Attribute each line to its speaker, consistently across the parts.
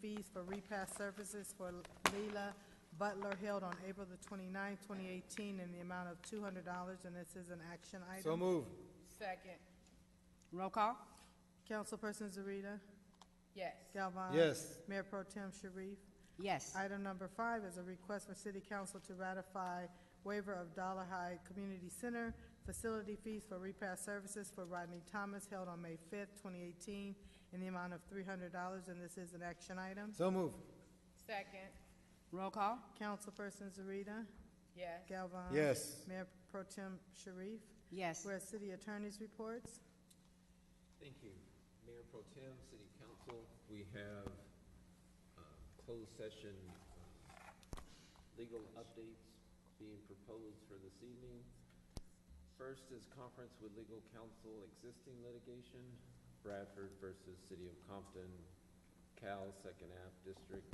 Speaker 1: fees for repass services for Leila Butler held on April the 29th, eighteen, in the amount of two hundred dollars, and this is an action
Speaker 2: So
Speaker 1: item.
Speaker 2: move.
Speaker 3: Second,
Speaker 4: Roll call?
Speaker 1: Councilperson Zarita.
Speaker 3: yes.
Speaker 1: Galvane.
Speaker 2: Yes.
Speaker 1: Mayor Pro Tem Sharif.
Speaker 4: Yes.
Speaker 1: Item number five is a request for City Council to ratify waiver of Dollar High Community Center facility fees for repair services for Rodney Thomas held on May fifth, twenty eighteen, in the amount of three hundred dollars, and this is an action item.
Speaker 2: So move.
Speaker 3: Second,
Speaker 4: Roll call?
Speaker 1: Councilperson Zarita.
Speaker 3: yes.
Speaker 1: Galvane.
Speaker 2: Yes.
Speaker 1: Mayor Pro Tem Sharif.
Speaker 4: Yes.
Speaker 1: Whereas city attorney's reports.
Speaker 5: Thank you. Mayor Pro Tem, City Council, we have um, closed session um, legal updates being proposed for this evening. First is conference with legal counsel existing litigation, Bradford versus City of Compton, Cal Second Ave District.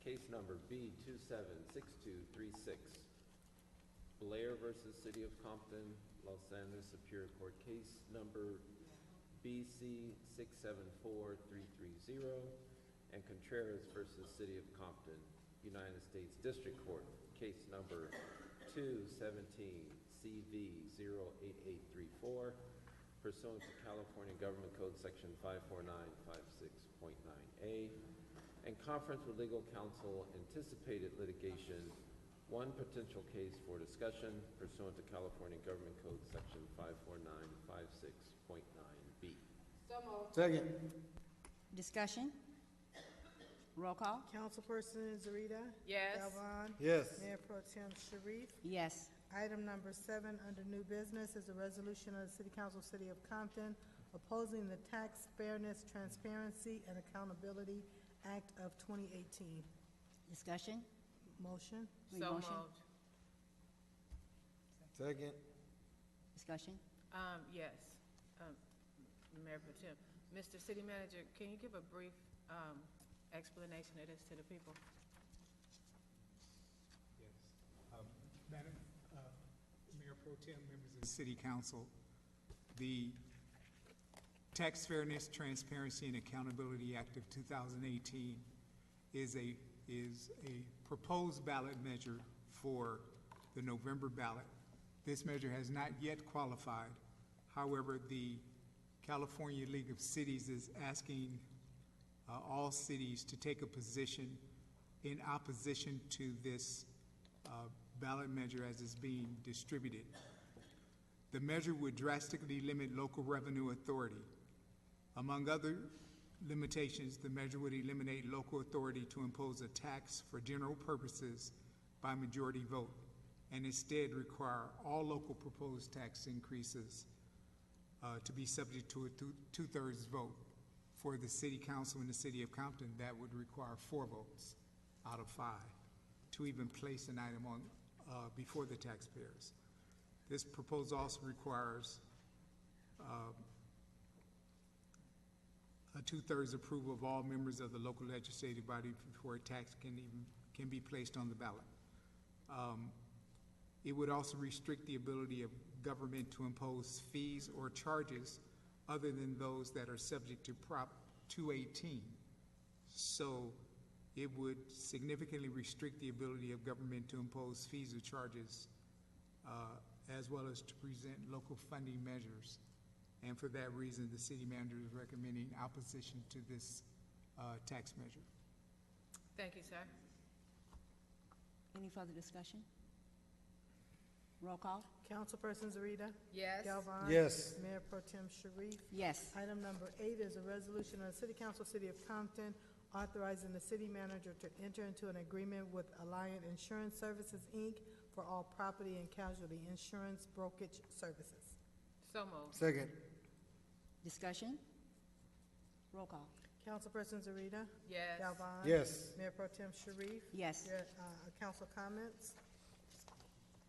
Speaker 5: Case number B two seven six two three six. Blair versus City of Compton, Los Angeles Superior Court Case Number BC six seven four three three zero, and Contreras versus City of Compton, United States District Court, Case Number two seventeen CV zero eight eight three four, pursuant to California Government Code Section five four nine five six point nine A, and conference with legal counsel anticipated litigation, one potential case for discussion pursuant to California Government Code Section 54956.9B.
Speaker 2: Second.
Speaker 4: Discussion? Roll call?
Speaker 1: Councilperson Zarita.
Speaker 3: Yes.
Speaker 1: Galvane.
Speaker 2: Yes.
Speaker 1: Mayor Pro Tem Sharif.
Speaker 4: Yes.
Speaker 1: Item number seven, under new business, is a resolution of the City Council, City of Compton, opposing the Tax Fairness, Transparency, and Accountability Act of 2018.
Speaker 4: Discussion?
Speaker 1: Motion?
Speaker 4: Need
Speaker 3: So
Speaker 4: motion?
Speaker 3: moved.
Speaker 2: Second.
Speaker 4: Discussion?
Speaker 3: Um, yes. Um, Mayor Pro Tem, Mr. City Manager, can you give a brief, um, explanation of this to the people?
Speaker 6: Yes. Um, Madam, uh, Mayor Pro Tem, members of the city council, the Tax Fairness, Transparency, and Accountability Act of 2018 is a, is a proposed ballot measure for the November ballot. This measure has not yet qualified. However, the California League of Cities is asking uh, all cities to take a position in opposition to this uh, ballot measure as it's being distributed. The measure would drastically limit local revenue authority. Among other limitations, the measure would eliminate local authority to impose a tax for general purposes by majority vote, and instead require all local proposed tax increases uh, to be subject to a two- two-thirds vote. For the city council in the city of Compton, that would require four votes out of five to even place an item on, uh, before the taxpayers. This proposal also requires um, a two-thirds approval of all members of the local legislative body before a tax can even, can be placed on the ballot. It would also restrict the ability of government to impose fees or charges other than those that are subject to Prop 218. So it would significantly restrict the ability of government to impose fees or charges, uh, as well as to present local funding measures. And for that reason, the city manager is recommending opposition to this uh, tax measure.
Speaker 3: Thank you, sir.
Speaker 4: Any further discussion? Roll call?
Speaker 1: Councilperson Zarita.
Speaker 3: Yes.
Speaker 1: Galvane.
Speaker 2: Yes.
Speaker 1: Mayor Pro Tem Sharif.
Speaker 4: Yes.
Speaker 1: Item number eight is a resolution of the City Council, City of Compton, authorizing the city manager to enter into an agreement with Alliant Insurance Services, Inc. for all property and casualty insurance brokerage services.
Speaker 3: So moved.
Speaker 2: Second.
Speaker 4: Discussion? Roll call?
Speaker 1: Councilperson Zarita.
Speaker 3: Yes.
Speaker 1: Galvane.
Speaker 2: Yes.
Speaker 1: Mayor Pro Tem Sharif.
Speaker 4: Yes.
Speaker 1: Your, uh, council comments.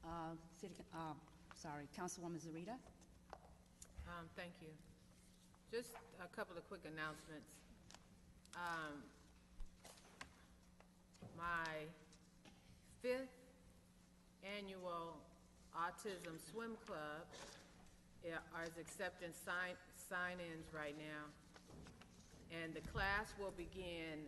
Speaker 4: Uh, City, Coun- uh, sorry, Councilwoman Zarita?
Speaker 3: Um, thank you. Just a couple of quick announcements. Um, my fifth annual Autism Swim Club i- is accepting sign, sign-ins right now. And the class will begin